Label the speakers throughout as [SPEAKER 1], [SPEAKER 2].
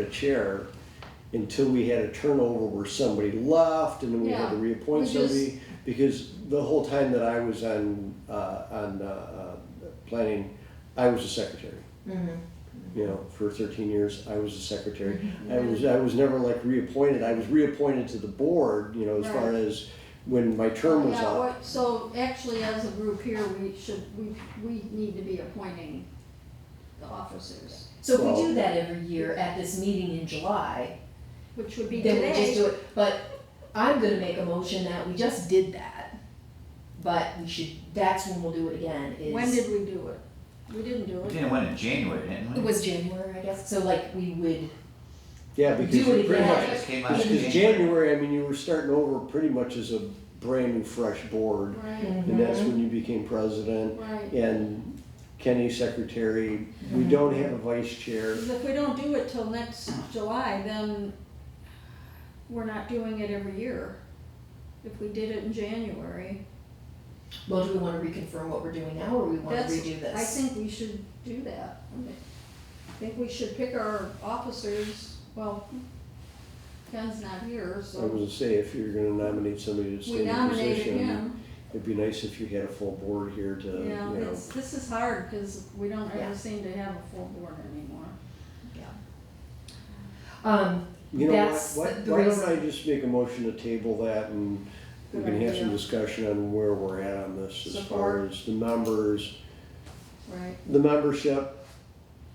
[SPEAKER 1] a chair until we had a turnover where somebody left and then we had to
[SPEAKER 2] Yeah,
[SPEAKER 1] reappoint
[SPEAKER 2] we just-
[SPEAKER 1] somebody. Because the whole time that I was on, uh, on, uh, uh, planning, I was a secretary. You know, for thirteen years, I was a secretary. I was, I was never like reappointed. I was reappointed to the board, you know, as far
[SPEAKER 2] Right.
[SPEAKER 1] as when my term was
[SPEAKER 2] Oh, Yeah,
[SPEAKER 1] up.
[SPEAKER 2] what- So actually, as a group here, we should, we, we need to be appointing the officers,
[SPEAKER 3] So if
[SPEAKER 1] Well-
[SPEAKER 3] we do that every year at this meeting in July,
[SPEAKER 2] which would be
[SPEAKER 3] then we
[SPEAKER 2] today.
[SPEAKER 3] just do it, but I'm gonna make a motion that we just did that. But we should, that's when we'll do it again, is.
[SPEAKER 2] When did we do it? We didn't do
[SPEAKER 4] We
[SPEAKER 2] it.
[SPEAKER 4] did one in January, didn't we?
[SPEAKER 3] It was January, I guess, so like we would,
[SPEAKER 1] Yeah, because
[SPEAKER 3] Do it
[SPEAKER 1] you pretty
[SPEAKER 3] again.
[SPEAKER 1] much,
[SPEAKER 4] It just came out in
[SPEAKER 1] because
[SPEAKER 4] January.
[SPEAKER 1] January, I mean, you were starting over pretty much as a brand new fresh board.
[SPEAKER 2] Right,
[SPEAKER 1] And that's when you became president
[SPEAKER 2] right.
[SPEAKER 1] and Kenny secretary.
[SPEAKER 2] Mm-hmm.
[SPEAKER 1] We don't have a vice chair.
[SPEAKER 2] Because if we don't do it till next July, then we're not doing it every year. If we did it in January,
[SPEAKER 3] well, do we wanna reconfirm what we're doing now, or we wanna
[SPEAKER 2] That's-
[SPEAKER 3] redo this?
[SPEAKER 2] I think we should do that. I think we should pick our officers, well, Ken's not here,
[SPEAKER 1] I was
[SPEAKER 2] so
[SPEAKER 1] gonna say, if you're gonna nominate somebody to stay
[SPEAKER 2] we
[SPEAKER 1] in the
[SPEAKER 2] nominated
[SPEAKER 1] position,
[SPEAKER 2] him.
[SPEAKER 1] it'd be nice if you had a full board here to, you
[SPEAKER 2] Yeah,
[SPEAKER 1] know.
[SPEAKER 2] it's, this is hard, cause we don't
[SPEAKER 3] Yeah.
[SPEAKER 2] ever seem to have a full board anymore.
[SPEAKER 3] Um,
[SPEAKER 1] You know what,
[SPEAKER 3] That's
[SPEAKER 1] what,
[SPEAKER 3] the
[SPEAKER 1] why don't
[SPEAKER 3] reason-
[SPEAKER 1] I just make a motion to table that and we can have some
[SPEAKER 2] Good idea.
[SPEAKER 1] discussion on where we're at on this as far
[SPEAKER 2] Support.
[SPEAKER 1] as the numbers,
[SPEAKER 2] Right.
[SPEAKER 1] the membership,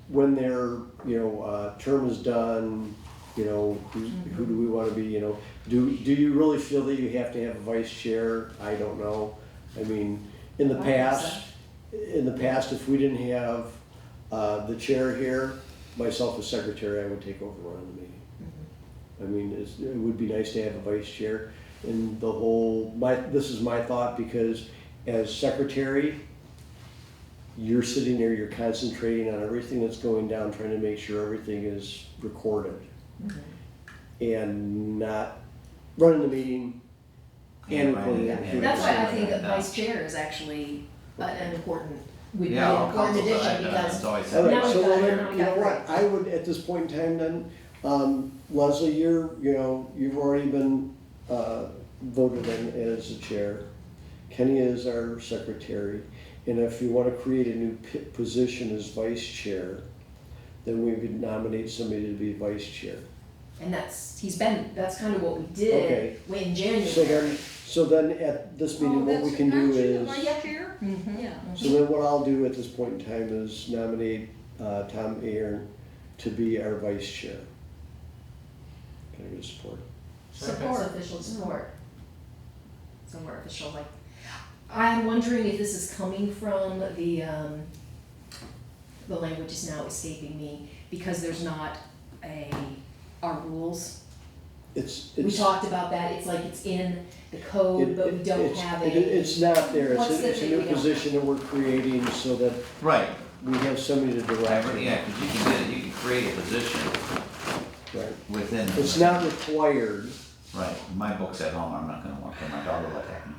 [SPEAKER 1] when their, you know, uh, term is done, you know, who, who do we wanna be, you know? Do, do you really feel that you have to have a vice chair? I don't know. I mean, in the
[SPEAKER 3] I think
[SPEAKER 1] past, in the past, if we didn't have, uh, the chair here, myself as secretary, I would take over running the meeting.
[SPEAKER 3] Mm-hmm.
[SPEAKER 1] I mean, it's, it would be nice to have a vice chair and the whole, my, this is my thought because as secretary, you're sitting there, you're concentrating on everything that's going down, trying to make sure everything is recorded. And not running the meeting and
[SPEAKER 4] Yeah,
[SPEAKER 1] recording
[SPEAKER 4] right,
[SPEAKER 1] it.
[SPEAKER 4] yeah.
[SPEAKER 3] that's why I think
[SPEAKER 4] Yeah.
[SPEAKER 3] that vice chair is actually a- an important, would be
[SPEAKER 4] Yeah,
[SPEAKER 3] an
[SPEAKER 4] all
[SPEAKER 3] important
[SPEAKER 4] councils
[SPEAKER 3] addition,
[SPEAKER 4] have done, it's
[SPEAKER 3] because,
[SPEAKER 4] always.
[SPEAKER 1] All
[SPEAKER 3] Now
[SPEAKER 1] right,
[SPEAKER 3] we've
[SPEAKER 1] so
[SPEAKER 3] got
[SPEAKER 1] well,
[SPEAKER 3] it,
[SPEAKER 1] then,
[SPEAKER 3] now we've
[SPEAKER 1] you know
[SPEAKER 3] got
[SPEAKER 1] what, I would, at this point in time then, um, Leslie, you're, you know, you've already been, uh, voted in as the chair. Kenny is our secretary, and if you wanna create a new p- position as vice chair, then we could nominate somebody to be vice chair.
[SPEAKER 3] and that's, he's been, that's kind of what we
[SPEAKER 1] Okay.
[SPEAKER 3] did in January.
[SPEAKER 1] So then, so then at
[SPEAKER 2] Oh,
[SPEAKER 1] this
[SPEAKER 3] Oh,
[SPEAKER 1] meeting, what we can do is. Mm-hmm.
[SPEAKER 2] Are you here?
[SPEAKER 3] Mhm.
[SPEAKER 2] Yeah.
[SPEAKER 1] So then what I'll do at this point in time is nominate uh, Tom Aaron to be our vice chair. Can I get support?
[SPEAKER 3] It's
[SPEAKER 2] Support.
[SPEAKER 3] official support. Somewhere official, like, I'm wondering if this is coming from the, um, the language is now escaping me, because there's not a, our rules.
[SPEAKER 1] It's,
[SPEAKER 3] We
[SPEAKER 1] it's.
[SPEAKER 3] talked about that, it's like it's in the
[SPEAKER 1] it-
[SPEAKER 3] code, but we don't
[SPEAKER 1] it's-
[SPEAKER 3] have
[SPEAKER 1] it-
[SPEAKER 3] a,
[SPEAKER 1] It's not there, it's,
[SPEAKER 3] What's
[SPEAKER 1] a-
[SPEAKER 3] the
[SPEAKER 1] it's a
[SPEAKER 3] thing
[SPEAKER 1] new
[SPEAKER 3] we don't have?
[SPEAKER 1] position that we're creating so that
[SPEAKER 4] Right,
[SPEAKER 1] we have somebody to
[SPEAKER 4] I
[SPEAKER 1] direct.
[SPEAKER 4] re-
[SPEAKER 1] it.
[SPEAKER 4] yeah, because you can, do it. you can create a position
[SPEAKER 1] Right.
[SPEAKER 4] within.
[SPEAKER 1] It's not required,
[SPEAKER 4] Right, my book's at home, I'm not gonna want, my daughter will let that happen.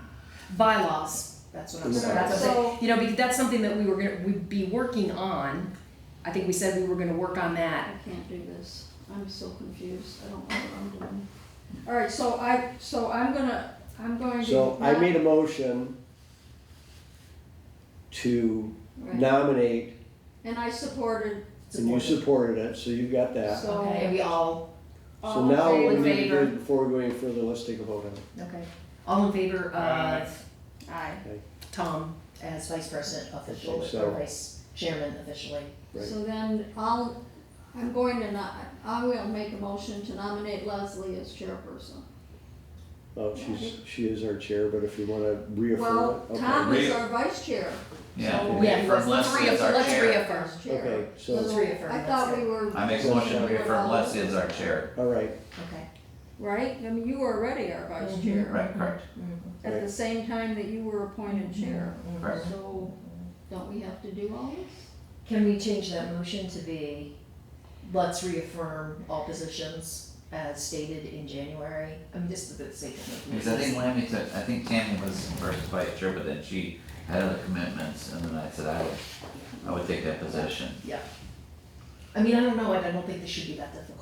[SPEAKER 3] bylaws, that's what I'm saying, that's what I'm saying.
[SPEAKER 2] So,
[SPEAKER 3] You know, because that's something that we were gonna, we'd be working on, I think we said we were gonna work on
[SPEAKER 2] I
[SPEAKER 3] that.
[SPEAKER 2] can't do this, I'm so confused, I don't know what I'm doing. Alright, so I, so I'm gonna, I'm going to.
[SPEAKER 1] so I
[SPEAKER 2] not-
[SPEAKER 1] made a motion to
[SPEAKER 2] right.
[SPEAKER 1] nominate,
[SPEAKER 2] And I supported,
[SPEAKER 1] and you supported it, so you've got that.
[SPEAKER 2] So-
[SPEAKER 3] Okay, and we all,
[SPEAKER 1] So
[SPEAKER 2] all in
[SPEAKER 1] now,
[SPEAKER 2] favor?
[SPEAKER 1] we
[SPEAKER 3] in
[SPEAKER 1] need to
[SPEAKER 3] favor?
[SPEAKER 1] do- before we go any further, let's take a vote on it.
[SPEAKER 3] okay, all in favor
[SPEAKER 4] Aye.
[SPEAKER 3] of
[SPEAKER 2] Aye.
[SPEAKER 3] Tom as vice president officially,
[SPEAKER 1] So-
[SPEAKER 3] or vice chairman officially.
[SPEAKER 1] Right.
[SPEAKER 2] So then I'll, I'm going to not, I will make a motion to nominate Leslie as chairperson.
[SPEAKER 1] Well, Oh, she's, she is our chair, but if you wanna reaffirm
[SPEAKER 2] Well,
[SPEAKER 1] it, okay.
[SPEAKER 2] Tom is
[SPEAKER 4] Re-
[SPEAKER 2] our vice chair.
[SPEAKER 4] Yeah,
[SPEAKER 2] So-
[SPEAKER 4] we'll
[SPEAKER 3] Oh, Yeah,
[SPEAKER 4] reaffirm
[SPEAKER 3] let's- let's
[SPEAKER 4] Leslie as our
[SPEAKER 3] reaffirm- let's
[SPEAKER 4] chair.
[SPEAKER 3] reaffirm.
[SPEAKER 2] Vice chair.
[SPEAKER 1] Okay, so-
[SPEAKER 3] Let's reaffirm,
[SPEAKER 2] Oh, I
[SPEAKER 3] that's
[SPEAKER 2] thought
[SPEAKER 3] good.
[SPEAKER 2] we were.
[SPEAKER 4] I make a motion to reaffirm Leslie as our chair.
[SPEAKER 1] All right,
[SPEAKER 3] Okay.
[SPEAKER 2] Right, I mean, you were already our vice
[SPEAKER 3] Mhm.
[SPEAKER 2] chair,
[SPEAKER 4] Right, correct.
[SPEAKER 2] at the same time that you were appointed chair.
[SPEAKER 4] Correct.
[SPEAKER 2] So, don't we have to do all this?
[SPEAKER 3] Can we change that motion to be, let's reaffirm all positions as stated in January? I mean, this is the statement.
[SPEAKER 4] Because I think Lammy took, I think Tammy was first vice chair, but then she had other commitments, and then I said I would, I would take that position.
[SPEAKER 3] I mean, I don't know, and I don't think this should be that difficult.